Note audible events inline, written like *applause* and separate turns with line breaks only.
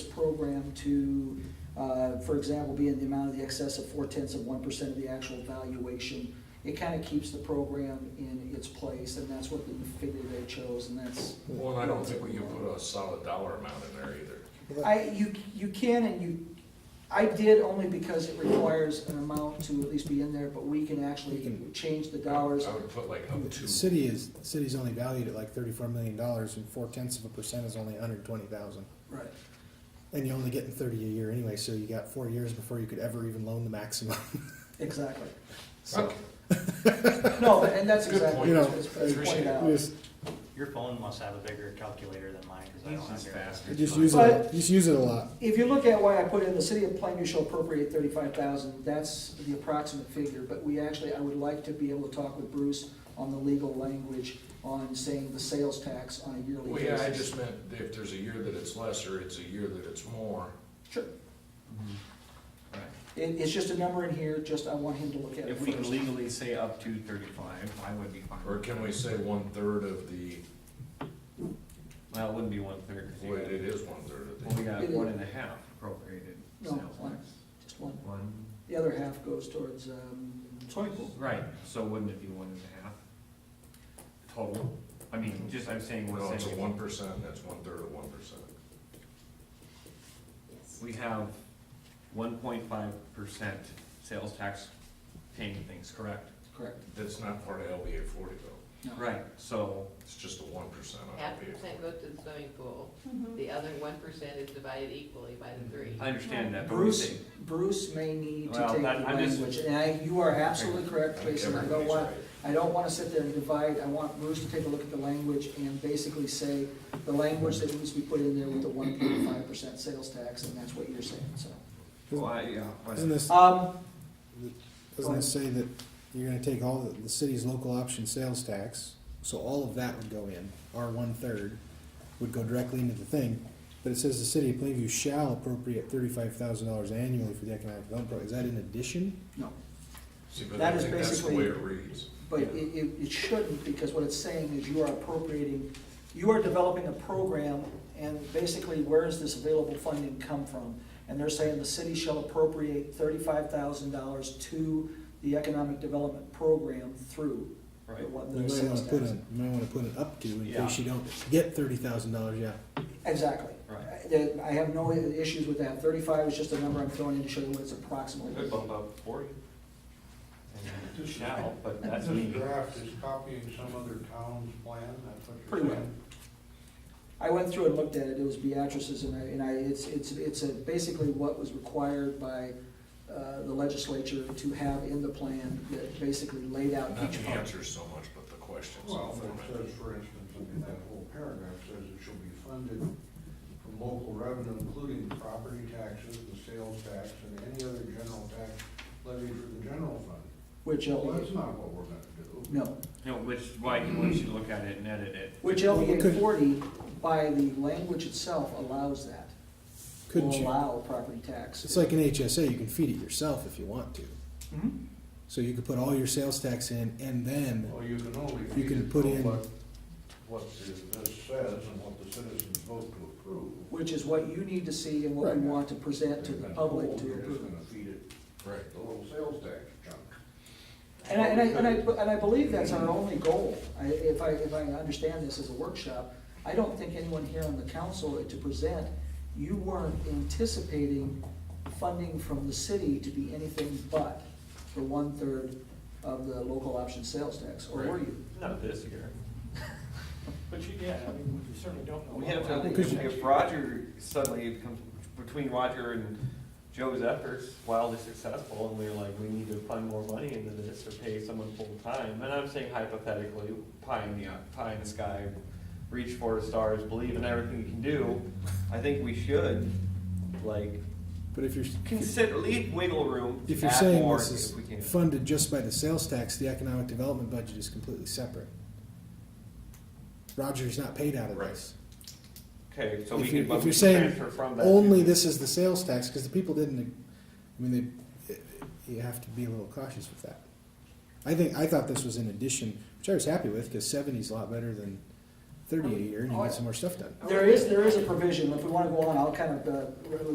program to, uh, for example, be in the amount of the excess of four tenths of one percent of the actual valuation. It kind of keeps the program in its place, and that's what the figure they chose, and that's,
Well, and I don't think we can put a solid dollar amount in there either.
I, you, you can and you, I did only because it requires an amount to at least be in there, but we can actually change the dollars.
I would put like up
The
to,
City is, the city's only valued at like thirty-four million dollars and four tenths of a percent is only hundred and twenty thousand.
Right.
And you're only getting thirty a year anyway, so you got four years before you could ever even loan the maximum. *laughs*
Exactly.
So,
Okay.
No, and that's
Good
exactly,
point.
it's it's pointed out.
just,
Your phone must have a bigger calculator than mine, because I don't have your.
just use it, just use it a lot.
If you look at why I put in the city of Plainview shall appropriate thirty-five thousand, that's the approximate figure, but we actually, I would like to be able to talk with Bruce on the legal language on saying the sales tax on a yearly
well,
basis.
yeah, I just meant if there's a year that it's less or it's a year that it's more.
Sure,
Right.
it, it's just a number in here, just I want him to look at it
If we can
first.
legally say up to thirty-five, I would be fine.
Or
with
can
that.
we say one-third of the,
Well, it wouldn't be one third.
well, it is one-third of
Well, we
the,
got one and a half appropriated
No,
sales
one.
tax.
Just one,
One,
the other half goes towards, um, swimming pool.
right, so wouldn't it be one and a half total? I mean, just I'm saying,
no,
we're
it's a one
saying,
percent, that's one-third of one percent.
we have one point five percent sales tax paying things, correct?
correct?
That's not part of LBA forty though,
No.
Right, so,
it's just a one percent on
Half
LBA.
percent goes to the swimming pool, the other one percent is divided equally by the three.
I understand that, but we're
Bruce,
saying,
Bruce may need to
Well,
take the
that- I'm just-
language, and I, you are absolutely
I
correct,
think
Jason, I don't
everybody's
want,
right.
I don't wanna sit there and divide, I want Bruce to take a look at the language and basically say, the language that needs to be put in there with the one point five percent sales tax, and that's what you're saying, so.
well, I, yeah. but-
Isn't this,
Um,
doesn't this say that you're gonna take all the, the city's local option sales tax, so all of that would go in, our one-third would go directly into the thing. But it says the city of Plainview shall appropriate thirty-five thousand dollars annually for the economic development program. Is that in addition?
no,
See, but
That
I
is
think that's the
basically-
way it reads.
but it, it, it shouldn't, because what it's saying is you are appropriating, you are developing a program, and basically, where does this available funding come from? And they're saying the city shall appropriate thirty-five thousand dollars to the economic development program through the
Right.
one,
You
the
might
sales
wanna put
tax.
a, you might wanna put an up to in
Yeah.
case you don't get thirty thousand dollars, yeah.
Exactly.
Right.
Uh, that- I have no i- issues with that. Thirty-five is just a number I'm throwing in to show you what it's approximately.
Could bump up forty. And Shall, but that's
This
me.
draft is copying some other town's plan, that's what you're
Pretty well.
saying?
I went through and looked at it, it was Beatrice's, and I, and I, it's, it's, it's a- basically what was required by uh, the legislature to have in the plan that basically laid out
Not
each
the
function.
answers so much, but the questions.
Well, but
Format.
it says, for instance, I mean, that whole paragraph says it shall be funded from local revenue, including property taxes, the sales tax, and any other general tax levied from the general fund.
Which
Well, that's
LBA,
not what we're gonna do.
no,
No, which, why you want you to look at it and edit it.
which
Well, we
LBA
could-
forty, by the language itself, allows that. Will
Couldn't you?
Allow property tax.
It's like an HSA, you can feed it yourself if you want to.
Mhm.
So you could put all your sales tax in and then,
Well, you can only.
You can put in-
What what the- this says and what the citizens vote to approve.
Which is what you need to see and what we
Right.
want to present to the public to
You're just
approve.
gonna feed it
Right.
the little sales tax chunk.
And I, and I, and I, and I believe that's our only goal, I, if I, if I understand this as a workshop, I don't think anyone here on the council to present, you weren't anticipating funding from the city to be anything but the one-third of the local option sales tax, or were you?
Not this year.
But you, yeah, I mean, we certainly don't know.
We have to,
Because
if-
you-
if Roger suddenly comes, between Roger and Joe's efforts, wildly successful, and we're like, we need to fund more money into this or pay someone full-time, and I'm saying hypothetically, pie in the, pie in the sky, reach for the stars, believe in everything you can do, I think we should, like,
but if you're,
consider, leave wiggle room.
if you're
add
saying
more
this is
if we can.
funded just by the sales tax, the economic development budget is completely separate. Roger's not paid out of
Right.
this.
Okay, so we
If
can,
you're,
but
if
we
you're
can
saying
transfer from that.
only
to-
this is the sales tax, because the people didn't, I mean, they, you have to be a little cautious with that. I think, I thought this was in addition, which I was happy with, because seventy's a lot better than thirty a year and you
Oh, yeah.
get some more stuff done.
There is, there is a provision, if we wanna go on, I'll kind of, uh,